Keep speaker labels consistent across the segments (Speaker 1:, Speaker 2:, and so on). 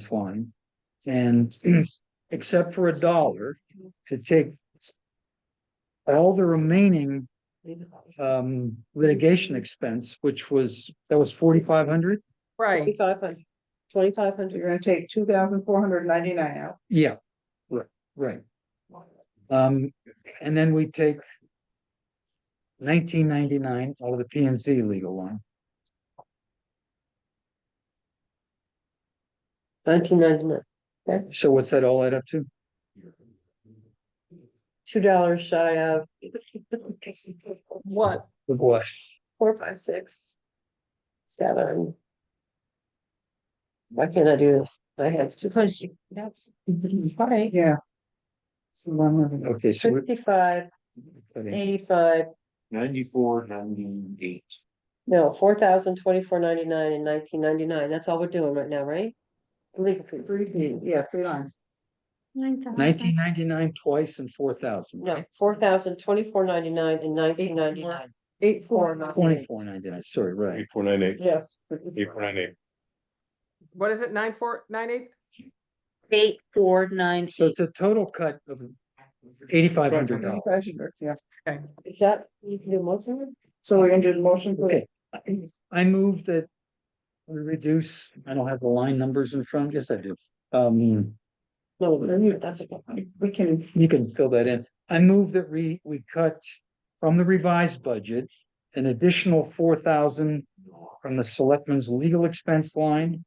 Speaker 1: this line. And except for a dollar to take. All the remaining um litigation expense, which was, that was forty-five hundred?
Speaker 2: Right,
Speaker 3: Twenty-five hundred. Twenty-five hundred, you're gonna take two thousand four hundred ninety-nine out.
Speaker 1: Yeah, right, right. Um, and then we take. Nineteen ninety-nine out of the P and Z legal line.
Speaker 3: Nineteen ninety-nine. Okay,
Speaker 1: So what's that all add up to?
Speaker 3: two dollars shy of.
Speaker 2: what?
Speaker 1: Of what?
Speaker 3: Four, five, six. Seven. Why can't I do this? My head's too. Because you. Right, yeah.
Speaker 1: Okay, so we're.
Speaker 3: Fifty-five, eighty-five,
Speaker 4: Ninety-four, ninety-eight.
Speaker 3: no, four thousand twenty-four ninety-nine and nineteen ninety-nine, that's all we're doing right now, right? Legal fee. Three, yeah, three lines.
Speaker 1: Nineteen ninety-nine twice and four thousand.
Speaker 3: No, four thousand twenty-four ninety-nine and nineteen ninety-nine. Eight, four.
Speaker 1: Twenty-four ninety-nine, sorry, right.
Speaker 5: Eight four nine eight.
Speaker 3: Yes.
Speaker 5: Eight four nine eight.
Speaker 2: What is it, nine four, nine eight?
Speaker 6: Eight, four, nine,
Speaker 1: So
Speaker 6: eight.
Speaker 1: it's a total cut of eighty-five hundred dollars.
Speaker 3: Yeah. Is that, you can do motion?
Speaker 7: So we're gonna do the motion for
Speaker 1: Okay, I moved that we reduce, I don't have the line numbers in front, yes, I do. Um,
Speaker 3: No, no, that's okay.
Speaker 7: we can,
Speaker 1: you can fill that in. I move that we, we cut from the revised budget an additional four thousand from the selectmen's legal expense line.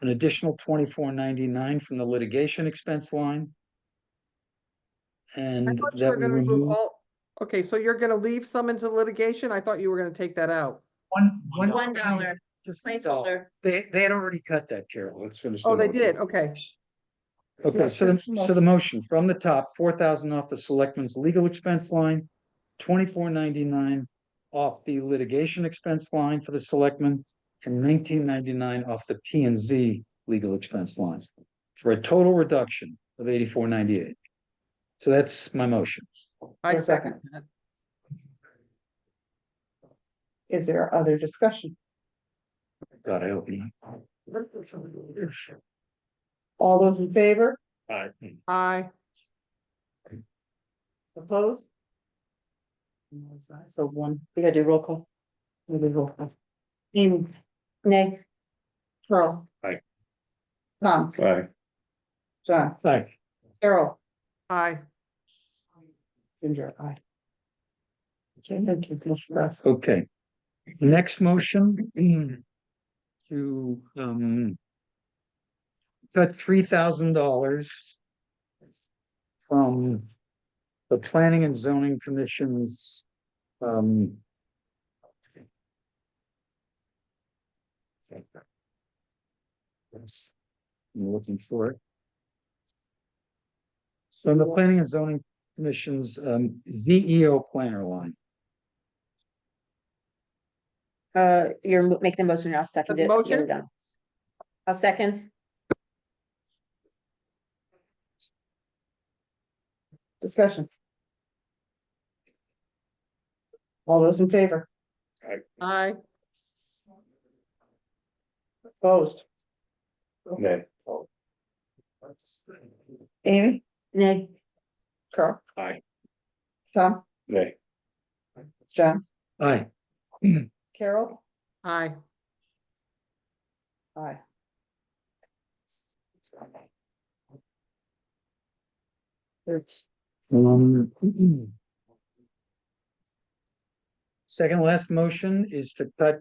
Speaker 1: An additional twenty-four ninety-nine from the litigation expense line.
Speaker 2: I
Speaker 1: And
Speaker 2: thought you
Speaker 1: that
Speaker 2: were
Speaker 1: we
Speaker 2: gonna remove
Speaker 1: remove
Speaker 2: all, okay, so you're gonna leave some into litigation? I thought you were gonna take that out.
Speaker 1: one, one.
Speaker 6: One dollar
Speaker 1: Just a dollar.
Speaker 6: placeholder.
Speaker 1: They, they had already cut that, Carol.
Speaker 5: Let's finish.
Speaker 2: Oh,
Speaker 5: the
Speaker 2: they
Speaker 5: motion.
Speaker 2: did, okay.
Speaker 1: Okay, so, the- so the motion from the top, four thousand off the selectmen's legal expense line, twenty-four ninety-nine off the litigation expense line for the selectmen, and nineteen ninety-nine off the P and Z legal expense line, for a total reduction of eighty-four ninety-eight. So that's my motion.
Speaker 2: I
Speaker 7: a second.
Speaker 2: that.
Speaker 7: is there other discussion?
Speaker 1: God, I hope you.
Speaker 7: All those in favor,
Speaker 5: Aye.
Speaker 2: Mm. Aye,
Speaker 7: opposed? So one,
Speaker 3: We gotta do roll call.
Speaker 7: we will roll call. Amy,
Speaker 6: Nay.
Speaker 7: Carl.
Speaker 5: Aye.
Speaker 7: Tom,
Speaker 5: Aye.
Speaker 7: John,
Speaker 1: Aye.
Speaker 7: Carol,
Speaker 2: aye.
Speaker 7: Ginger, I. Okay, thank you, Commissioner Russ.
Speaker 1: Okay. Next motion. To, um. Cut three thousand dollars. From the planning and zoning commissions, um. Yes, I'm looking for it. So the planning and zoning commissions, um, Z E O planner line.
Speaker 6: Uh, you're mo- making the motion, I'll second
Speaker 2: The
Speaker 6: it. so
Speaker 2: motion?
Speaker 6: we're done. I'll second.
Speaker 7: discussion. All those in favor,
Speaker 2: Aye,
Speaker 7: opposed?
Speaker 5: Nay.
Speaker 7: Amy,
Speaker 6: Nay.
Speaker 7: Carl.
Speaker 5: Aye.
Speaker 7: Tom,
Speaker 5: Nay.
Speaker 7: John,
Speaker 1: Aye,
Speaker 7: Carol,
Speaker 2: aye.
Speaker 7: aye. It's
Speaker 1: um. Second last motion is to cut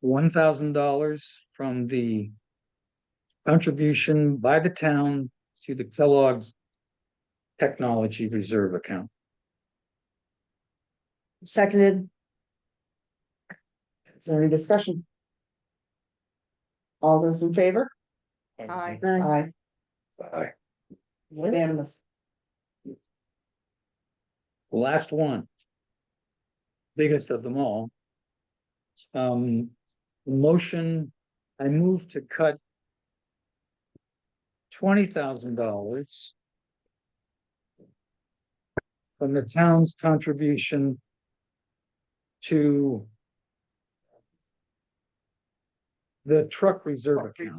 Speaker 1: one thousand dollars from the. Contribution by the town to the Kellogg. Technology Reserve Account.
Speaker 6: Seconded.
Speaker 7: Is there any discussion? All those in favor?
Speaker 2: Aye.
Speaker 6: Aye.
Speaker 7: Aye.
Speaker 5: Aye.
Speaker 7: Unanimous.
Speaker 1: Last one. Biggest of them all. Um, motion, I move to cut. Twenty thousand dollars. From the town's contribution. To. the truck reserve account.